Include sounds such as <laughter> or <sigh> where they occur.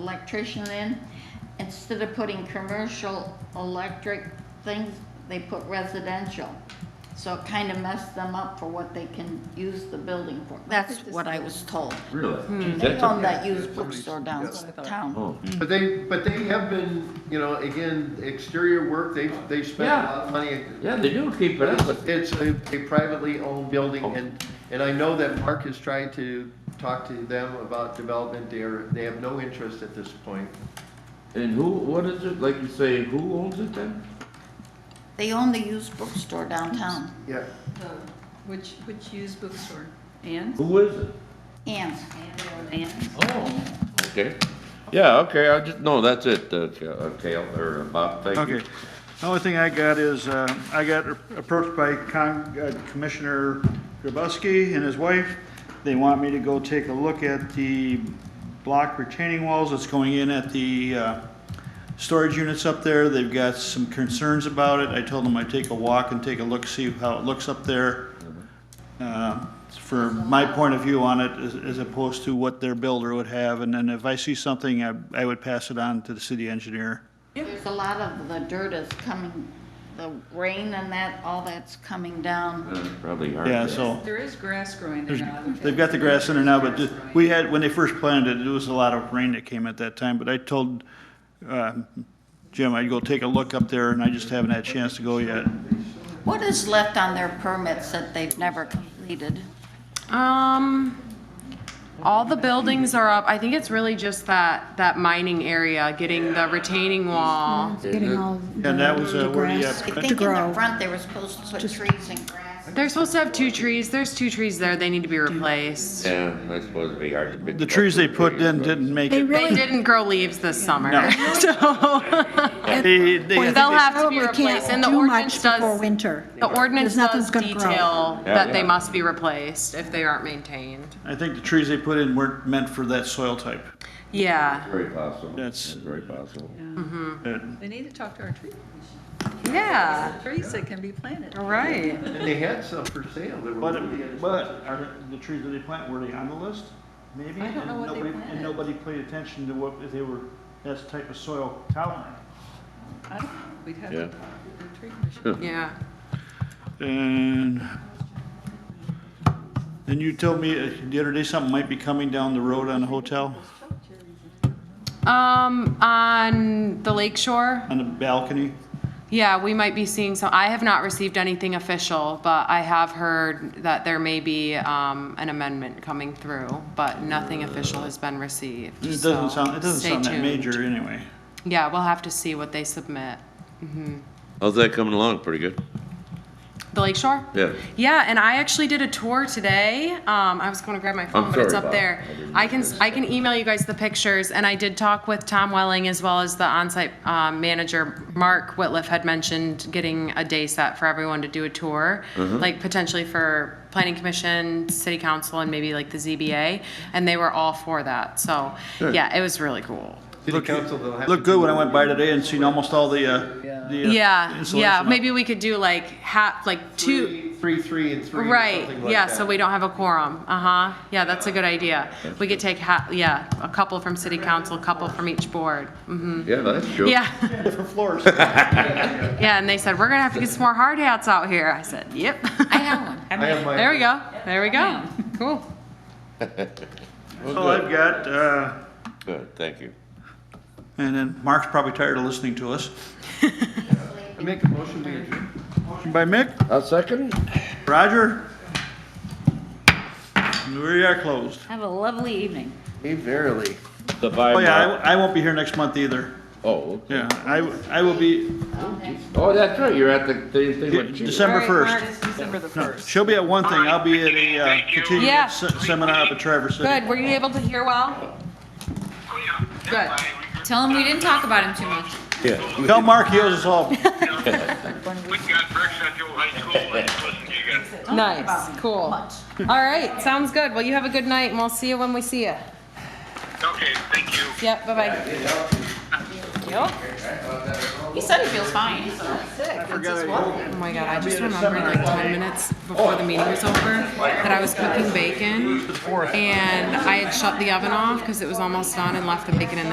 electrician in, instead of putting commercial electric things, they put residential. So it kind of messed them up for what they can use the building for. That's what I was told. Really? They That's own a- that used bookstore downtown. Oh, But they, but they have been, you know, again, exterior work, they've, they've spent a lot of money. yeah, they do keep it up, but It's a a privately owned building and, and I know that Mark has tried to talk to them about development there. They have no interest at this point. And who, what is it, like you say, who owns it then? They own the used bookstore downtown. Yeah. The- Which, which used bookstore? Ann's? Who is it? And Ann's. Oh. Okay, yeah, okay, I just, no, that's it, uh, Ca- uh, Cal, or uh, Bob, thank you. Okay. The only thing I got is, uh, I got approached by Con- uh, Commissioner Grabowski and his wife. They want me to go take a look at the block retaining walls that's going in at the uh, storage units up there. They've got some concerns about it. I told them I'd take a walk and take a look, see how it looks up there. Uh, For my point of view on it, as- as opposed to what their builder would have. And then if I see something, I I would pass it on to the city engineer. there's a lot of the dirt is coming, the rain and that, all that's coming down. Uh, Probably hard. Yeah, to- so. There is grass growing there now. They've got the grass in there now, but ju- we had, when they first planted it, there was a lot of rain that came at that time, but I told, uh, Jim, I'd go take a look up there, and I just haven't had a chance to go yet. What is left on their permits that they've never completed? Um, all the buildings are up. I think it's really just that, that mining area, getting the retaining wall. Getting all And that was the uh, where the, grass uh, I to think in the grow. front, they were supposed to put trees and grass. They're supposed to have two trees. There's two trees there. They need to be replaced. Yeah, that's supposed to be hard. to bid the trees they put in but- didn't make They it. They really, didn't grow leaves this summer, <laughs> No. They- they- so I think they'll they- have to be probably can't replaced. And the do much ordinance before does, winter. the ordinance Because nothing's does gonna grow. detail Yeah, that yeah. they must be replaced if they aren't maintained. I think the trees they put in weren't meant for that soil type. Yeah. Very possible. That's- Very possible. Uh, They need to talk to our tree, Yeah. trees that can be planted. Right. And they had some for sale. that were really But, but are the trees that they plant, were they on the list? Maybe? I don't know And what they nobody- planted. And nobody paid attention to what, if they were, that's type of soil tolerant. I don't know, we'd have Yeah. to talk to the tree commission. Yeah. And then you told me uh, the other day something might be coming down the road on the hotel, Um, on the lake shore, on the balcony. Yeah, we might be seeing some, I have not received anything official, but I have heard that there may be, um, an amendment coming through, but nothing official has been received, It so doesn't sound, it doesn't stay sound that tuned. major anyway. Yeah, we'll have to see what they submit. How's that coming along? Pretty good? The Lake Shore? Yeah. Yeah, and I actually did a tour today. Um, I was going to grab my phone, but it's sorry, Bob. up there. I didn't I can I can email you guys the pictures, and I did talk with Tom Welling as well as the onsite um, manager Mark Whitliff had mentioned getting a day set for everyone to do a tour, Uh-huh. like potentially for planning commission, city council, and maybe like the ZBA, and they were all for that. So yeah, it was really cool. City council, they'll have to. Looked good when I went by today and seen almost all the, uh, the. uh, Yeah, insulation yeah, up. maybe we could do like half, like two. Three, three, three, and three, or something Right, like yeah, that. so we don't have a quorum, uh-huh, yeah, that's a good idea. We could take ha, yeah, a couple from city council, a couple from each board, mhm. Yeah, that's true. Yeah, <laughs> Different floors. yeah, and they said, we're gonna have to get some more hard hats out here, I said, yep. I have <laughs> one. I have my- There we go, there we go, cool. That's all I've got, uh, Good, thank you. and then Mark's probably tired of listening to us. I make a motion to adjourn. Motion By Mick, A second? Roger. We are closed. Have a lovely evening. Me verily. The by. Oh, yeah, I, I won't be here next month either. Oh, Yeah, I, I will be, oh, that's right, you're at the, the thing with you. December first. December the No, 1st. she'll be at one thing, I'll be at a uh, continuing Yeah. se- seminar up at Traverse City. Good, were you able to hear well? Good. Tell him we didn't talk about him too much. Tell Mark he owes us all. We got Brick Central High School, and listen to you guys. Nice, cool. All right, sounds good, well, you have a good night, and we'll see you when we see you. Okay, thank you. Yep, bye-bye. Yep. He said he feels fine, so. Oh my god, I just remembered like ten minutes before the meeting was over that I was cooking bacon and I had shut the oven off because it was almost done and left the bacon in there.